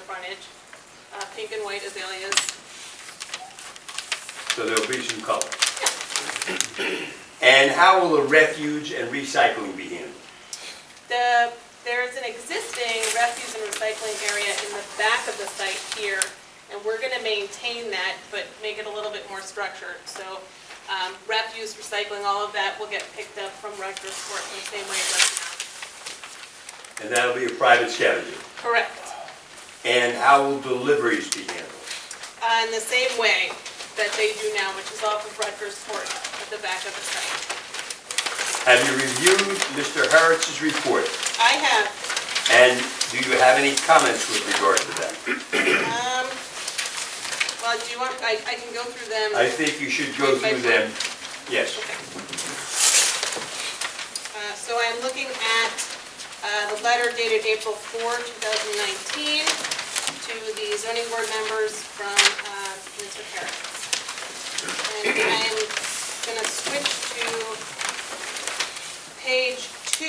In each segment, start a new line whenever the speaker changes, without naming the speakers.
frontage, uh, pink and white azaleas.
So there'll be some color. And how will the refuge and recycling be handled?
The, there is an existing refuse and recycling area in the back of the site here, and we're gonna maintain that, but make it a little bit more structured. So, um, refuse, recycling, all of that will get picked up from Rutgers Court in the same way it does now.
And that'll be a private scavenger.
Correct.
And how will deliveries be handled?
Uh, in the same way that they do now, which is off of Rutgers Court at the back of the site.
Have you reviewed Mr. Harris's report?
I have,
And do you have any comments with regard to that?
um, well, do you want, I, I can go through them.
I think you should go through them. Yes.
Okay. Uh, So I'm looking at uh, the letter dated April 4, 2019, to the zoning board members from uh, Mr. Harris. And I'm going to switch to page two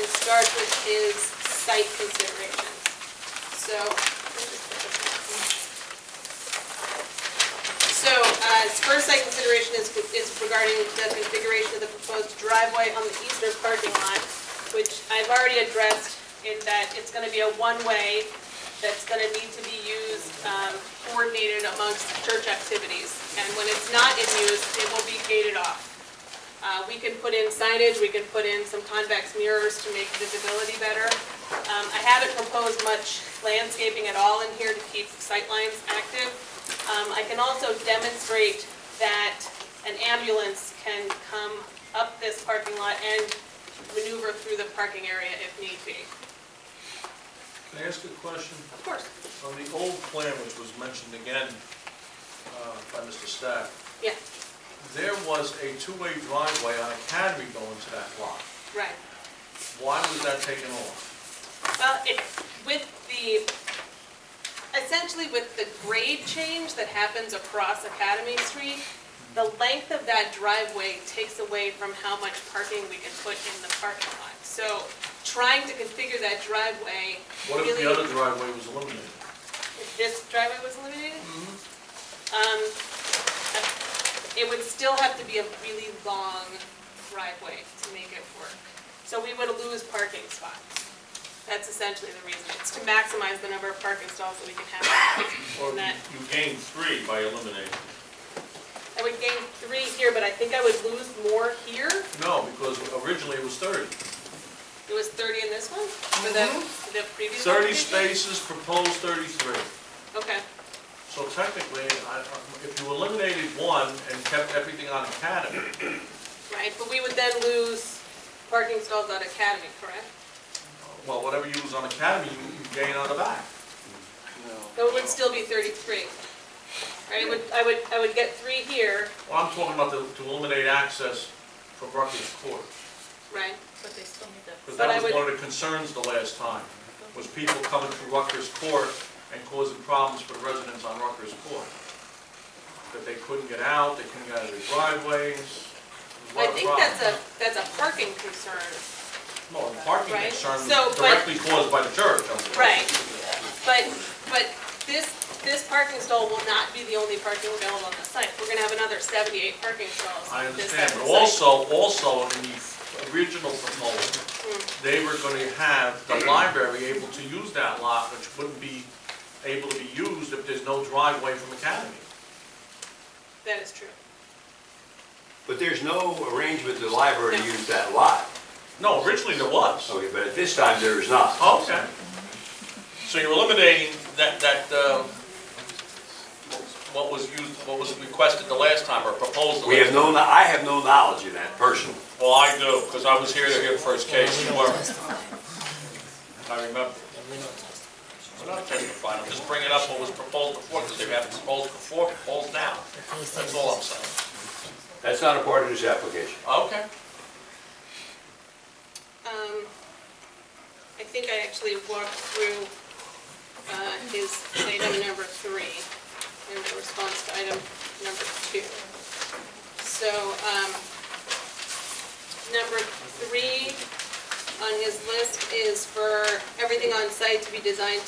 and start with his site considerations. So, so, uh, his first site consideration is, is regarding the configuration of the proposed driveway on the eastern parking lot, which I've already addressed in that it's gonna be a one-way that's gonna need to be used, um, coordinated amongst church activities. And when it's not in use, it will be gated off. Uh, we can put in signage, we can put in some convex mirrors to make visibility better. Um, I haven't proposed much landscaping at all in here to keep sightlines active. Um, I can also demonstrate that an ambulance can come up this parking lot and maneuver through the parking area if need be.
Can I ask a question?
Of course.
On the old plan, which was mentioned again uh, by Mr. Stack,
Yeah,
there was a two-way driveway on Academy going to that lot.
right.
Why was that taken off?
Well, it, with the, essentially with the grade change that happens across Academy Street, the length of that driveway takes away from how much parking we can put in the parking lot. So trying to configure that driveway
What
really.
if the other driveway was eliminated?
If this driveway was eliminated? Um, it would still have to be a really long driveway to make it work. So we would lose parking spots. That's essentially the reason. It's to maximize the number of parking stalls that we can have.
Or you
That-
you gained three by eliminating?
I would gain three here, but I think I would lose more here.
No, because originally it was 30.
It was thirty in this one, for the, for the previous.
30
application?
spaces, proposed 33.
Okay,
So technically, I- if you eliminated one and kept everything on Academy,
right, but we would then lose parking stalls on Academy, correct?
well, whatever you lose on Academy, you you gain on the back.
So it would still be thirty-three. Right, I would, I would, I would get three here,
Well, I'm talking about to- to eliminate access from Rutgers Court,
right?
But they still need the,
because
But I
that was
would-
one of the concerns the last time, was people coming through Rutgers Court and causing problems for the residents on Rutgers Court. That they couldn't get out, they couldn't get out of their driveways, it was a
I
lot of
think
problems.
that's a, that's a parking concern.
No, the parking
right?
concern was
So, but-
directly caused by the church. I'm sorry.
Right. But, but this, this parking stall will not be the only parking available on the site. We're gonna have another seventy-eight parking stalls.
I
on this
understand,
side of
but
the site.
also, also in the original proposal, they were gonna have the library able to use that lot, which wouldn't be able to be used if there's no driveway from Academy.
That is true.
But there's no arrangement the library to use that lot.
No, originally there was.
Okay, but at this time, there is not.
Okay. So you're eliminating that, that, um, what was used, what was requested the last time or proposed the
We
last
have
time?
no, I have no knowledge of that personally.
Well, I do, because I was here to hear the first case, you weren't. I remember. I'm not testifying, I'm just bringing up what was proposed before, because they haven't proposed before, proposed now. That's all I'm saying.
That's not a part of this application.
Okay.
Um, I think I actually walked through, uh, his item number three, in the response to item number two. So, um, number three on his list is for everything on site to be designed